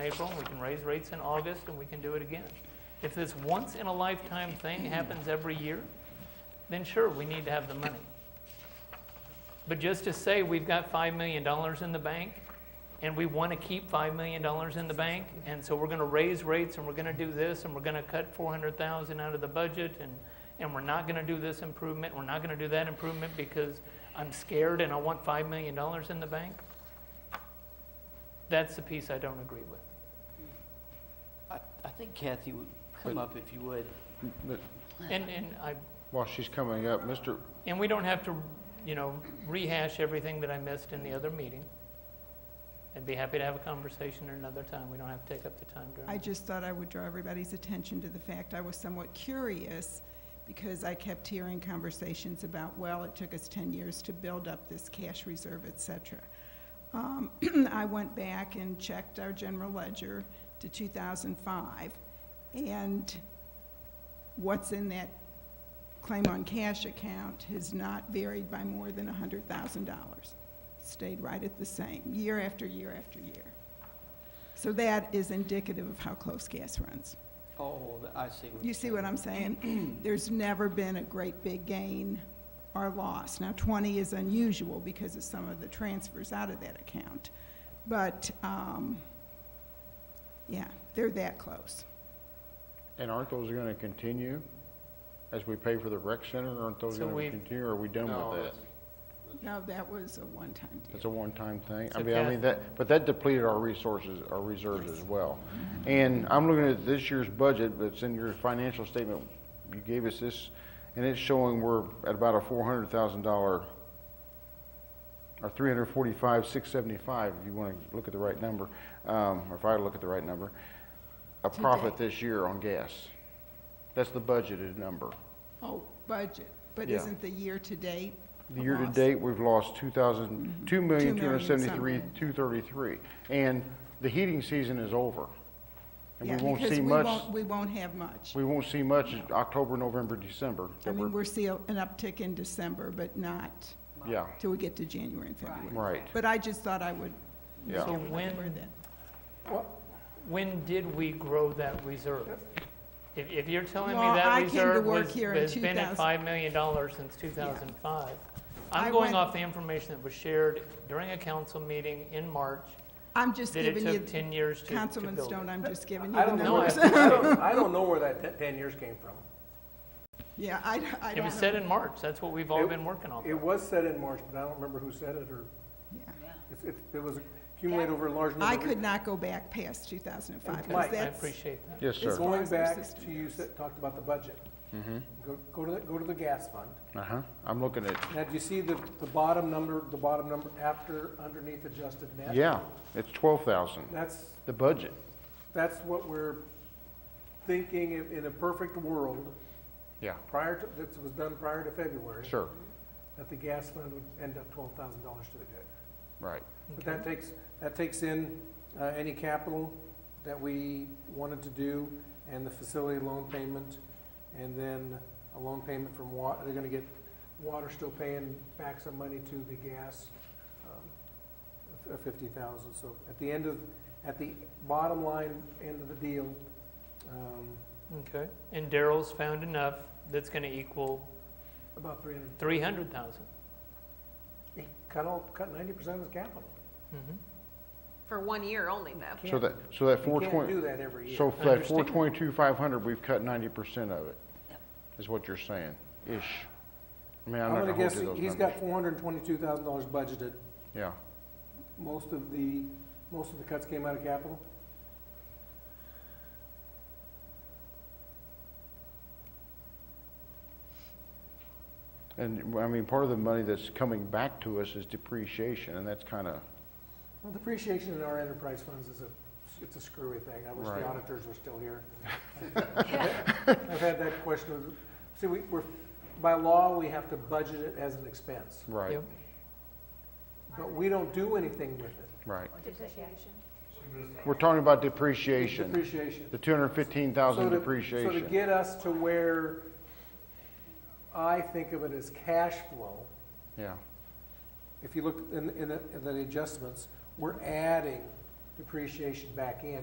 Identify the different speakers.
Speaker 1: April, we can raise rates in August, and we can do it again. If this once-in-a-lifetime thing happens every year, then sure, we need to have the money. But just to say we've got $5 million in the bank, and we want to keep $5 million in the bank, and so we're going to raise rates, and we're going to do this, and we're going to cut 400,000 out of the budget, and, and we're not going to do this improvement, we're not going to do that improvement because I'm scared and I want $5 million in the bank, that's the piece I don't agree with.
Speaker 2: I, I think Kathy would come up if you would.
Speaker 3: But
Speaker 1: And, and I,
Speaker 3: While she's coming up, Mr.,
Speaker 1: and we don't have to, you know, rehash everything that I missed in the other meeting. I'd be happy to have a conversation at another time, we don't have to take up the time during.
Speaker 4: I just thought I would draw everybody's attention to the fact I was somewhat curious because I kept hearing conversations about, well, it took us 10 years to build up this cash reserve, et cetera. Um, I went back and checked our general ledger to 2005, and what's in that claim on cash account has not varied by more than $100,000. Stayed right at the same, year after year after year. So that is indicative of how close gas runs.
Speaker 2: Oh, th- I see. what
Speaker 4: You
Speaker 2: you're
Speaker 4: see
Speaker 2: saying.
Speaker 4: what I'm saying? There's never been a great big gain or loss. Now, 20 is unusual because of some of the transfers out of that account. But, um, yeah, they're that close.
Speaker 3: and aren't those going to continue as we pay for the rec center? Aren't those
Speaker 1: So
Speaker 3: going
Speaker 1: we-
Speaker 3: to continue, or are we done
Speaker 5: No,
Speaker 3: with that?
Speaker 5: that's-
Speaker 4: No, that was a one-time deal.
Speaker 3: It's a one-time thing. I
Speaker 1: So
Speaker 3: mean, I
Speaker 1: Kathy-
Speaker 3: mean, that, but that depleted our resources, our reserves as well. And I'm looking at this year's budget, but it's in your financial statement, you gave us this, and it's showing we're at about a four hundred thousand dollar, or three hundred forty-five, six seventy-five, if you want to look at the right number, um, or if I look at the right number, a profit this year on gas. That's the budgeted number.
Speaker 4: Oh, budget, but
Speaker 3: Yeah.
Speaker 4: isn't the year-to-date?
Speaker 3: The
Speaker 4: a loss?
Speaker 3: year-to-date, we've lost 2,000, 2,273,000,
Speaker 4: something.
Speaker 3: 233. And the heating season is over. And we
Speaker 4: Yeah,
Speaker 3: won't
Speaker 4: because
Speaker 3: see
Speaker 4: we
Speaker 3: much,
Speaker 4: won't- We won't have much.
Speaker 3: we won't see much in October, November, December.
Speaker 4: I
Speaker 3: that
Speaker 4: mean,
Speaker 3: we're-
Speaker 4: we're seeing an uptick in December, but not
Speaker 3: Yeah,
Speaker 4: till we get to January and February.
Speaker 3: right.
Speaker 4: But I just thought I would.
Speaker 3: Yeah.
Speaker 1: So when- When did we grow that reserve? If, if you're telling me
Speaker 4: Well, I
Speaker 1: that
Speaker 4: came to
Speaker 1: reserve
Speaker 4: work
Speaker 1: was,
Speaker 4: here in
Speaker 1: has been at
Speaker 4: 2000.
Speaker 1: $5 million since 2005, I'm
Speaker 4: I
Speaker 1: going
Speaker 4: went-
Speaker 1: off the information that was shared during a council meeting in March,
Speaker 4: I'm just
Speaker 1: that it
Speaker 4: giving
Speaker 1: took
Speaker 4: you,
Speaker 1: 10 years to to build.
Speaker 4: Councilman
Speaker 1: it.
Speaker 4: Stone, I'm just giving you
Speaker 5: I
Speaker 4: the
Speaker 5: don't know, where
Speaker 4: numbers.
Speaker 5: that- I don't, I don't know where that te- ten years came from.
Speaker 4: Yeah, I, I
Speaker 1: It was
Speaker 4: don't
Speaker 1: said
Speaker 4: know.
Speaker 1: in March, that's what we've all
Speaker 5: It-
Speaker 1: been working on.
Speaker 5: It was said in March, but I don't remember who said it, or
Speaker 4: Yeah.
Speaker 5: if, if it was accumulated over a large number.
Speaker 4: I
Speaker 5: of-
Speaker 4: could not go back past 2005. 'cause
Speaker 5: Mike.
Speaker 1: I
Speaker 5: I
Speaker 4: that's-
Speaker 1: appreciate that.
Speaker 3: Yes,
Speaker 4: It's
Speaker 3: sir.
Speaker 4: far
Speaker 5: Going
Speaker 4: as our
Speaker 5: back
Speaker 4: system
Speaker 5: to you
Speaker 4: goes.
Speaker 5: said, talked about the budget.
Speaker 3: Mm-hmm.
Speaker 5: Go, go to, the- go to the gas fund.
Speaker 3: Uh-huh. I'm looking at,
Speaker 5: Now, do you see the, the bottom number, the bottom number after, underneath adjusted net?
Speaker 3: yeah, it's 12,000,
Speaker 5: That's,
Speaker 3: the budget.
Speaker 5: that's what we're thinking in, in a perfect world,
Speaker 3: Yeah,
Speaker 5: prior to, this was done prior to February.
Speaker 3: sure,
Speaker 5: That the gas fund would end up twelve thousand dollars to the good.
Speaker 3: right.
Speaker 5: But that takes, that takes in uh, any capital that we wanted to do, and the facility loan payment, and then a loan payment from wa, they're gonna get, water still paying back some money to the gas, um, of fifty thousand, so at the end of, at the bottom line, end of the deal, um,
Speaker 1: Okay, and Daryl's found enough that's gonna equal
Speaker 5: about three hundred,
Speaker 1: three hundred thousand.
Speaker 5: he cut all, cut ninety percent of his capital.
Speaker 1: Mm-hmm.
Speaker 6: For one year only, though.
Speaker 3: So that, so that
Speaker 5: You can't
Speaker 3: 420,
Speaker 5: do that every year.
Speaker 3: so that
Speaker 1: Understand.
Speaker 3: 422,500, we've cut 90% of it, is what you're saying, ish. I mean, I'm not
Speaker 5: I'm
Speaker 3: going to
Speaker 5: gonna
Speaker 3: hold
Speaker 5: guess
Speaker 3: you to those
Speaker 5: he's got
Speaker 3: numbers.
Speaker 5: four hundred and twenty-two thousand dollars budgeted,
Speaker 3: Yeah.
Speaker 5: Most of the, most of the cuts came out of capital?
Speaker 3: And, I mean, part of the money that's coming back to us is depreciation, and that's kind of,
Speaker 5: Well, depreciation in our enterprise funds is a, it's a screwy thing. I wish
Speaker 3: Right.
Speaker 5: the auditors were still here. I've had that question. of- See, we, we're, by law, we have to budget it as an expense,
Speaker 3: right,
Speaker 1: Yep.
Speaker 5: but we don't do anything with it.
Speaker 3: right. We're talking about depreciation,
Speaker 5: Depreciation.
Speaker 3: the two hundred and fifteen thousand
Speaker 5: So to- So to
Speaker 3: depreciation.
Speaker 5: get us to where I think of it as cash flow,
Speaker 3: Yeah,
Speaker 5: if you look in, in the- in the adjustments, we're adding depreciation back in